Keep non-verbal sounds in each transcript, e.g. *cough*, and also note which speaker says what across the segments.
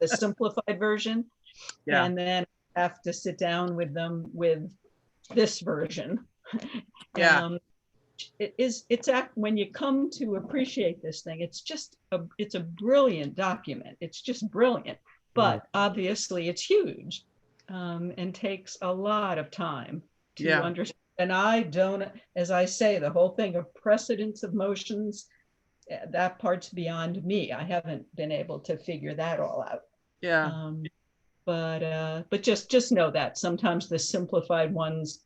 Speaker 1: the simplified version.
Speaker 2: Yeah.
Speaker 1: And then I have to sit down with them with this version.
Speaker 3: uh,
Speaker 2: Yeah.
Speaker 1: Um, It is, it's act, when you come to appreciate this thing, it's just, a it's a brilliant document. It's just brilliant.
Speaker 2: Mm.
Speaker 1: But obviously it's huge um, and takes a lot of time to
Speaker 2: Yeah.
Speaker 1: understand. And I don't, as I say, the whole thing of precedence of motions, eh, that part's beyond me. I haven't been able to figure that all out.
Speaker 3: uh,
Speaker 2: Yeah.
Speaker 1: Um, but uh, but just just know that sometimes the simplified ones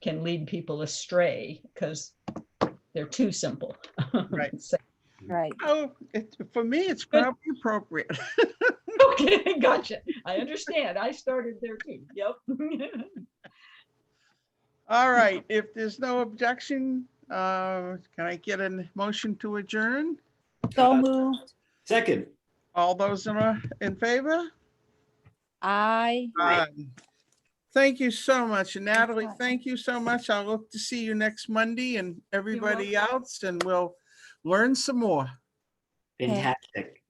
Speaker 1: can lead people astray because they're too simple.
Speaker 2: Right.
Speaker 1: *laughs* So-
Speaker 3: Right.
Speaker 2: Oh, it, for me, it's probably appropriate. *laughs*
Speaker 1: okay, gotcha. I understand. I started there too. Yep. *laughs*
Speaker 2: All right, if there's no objection, uh, can I get a motion to adjourn?
Speaker 3: So moved.
Speaker 4: Second,
Speaker 2: All those in, a- in favor?
Speaker 3: I.
Speaker 4: Aye.
Speaker 2: Aye. Thank you so much. And Natalie,
Speaker 3: fine.
Speaker 2: thank you so much. I look to see you next Monday and everybody else, and we'll learn some more.
Speaker 4: fantastic.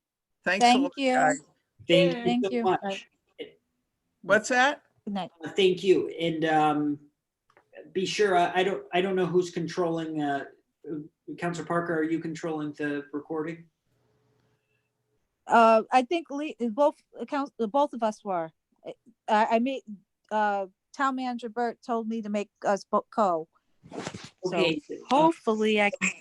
Speaker 2: Thanks. a
Speaker 3: Thank
Speaker 2: lot,
Speaker 3: you.
Speaker 2: guys.
Speaker 4: Thank
Speaker 3: Thank
Speaker 4: you so
Speaker 3: you.
Speaker 4: much.
Speaker 2: What's that?
Speaker 3: Good night.
Speaker 4: Uh, Thank you. And um, be sure, I I don't, I don't know who's controlling, uh, Counselor Parker, are you controlling the recording?
Speaker 3: Uh, I think Lee, both accounts, both of us were. I, I made, uh, town manager Bert told me to make us both co. So
Speaker 4: Okay, uh,
Speaker 3: hopefully I, can-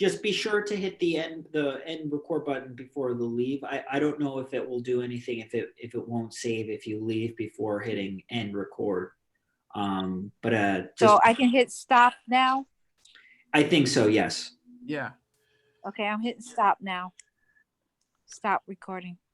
Speaker 4: just be sure to hit the end, the end record button before the leave. I, I don't know if it will do anything, if it, if it won't save if you leave before hitting end record. Um, But uh, just,
Speaker 3: so I can hit stop now.
Speaker 4: I think so, yes.
Speaker 2: Yeah.
Speaker 3: Okay, I'm hitting stop now. Stop recording.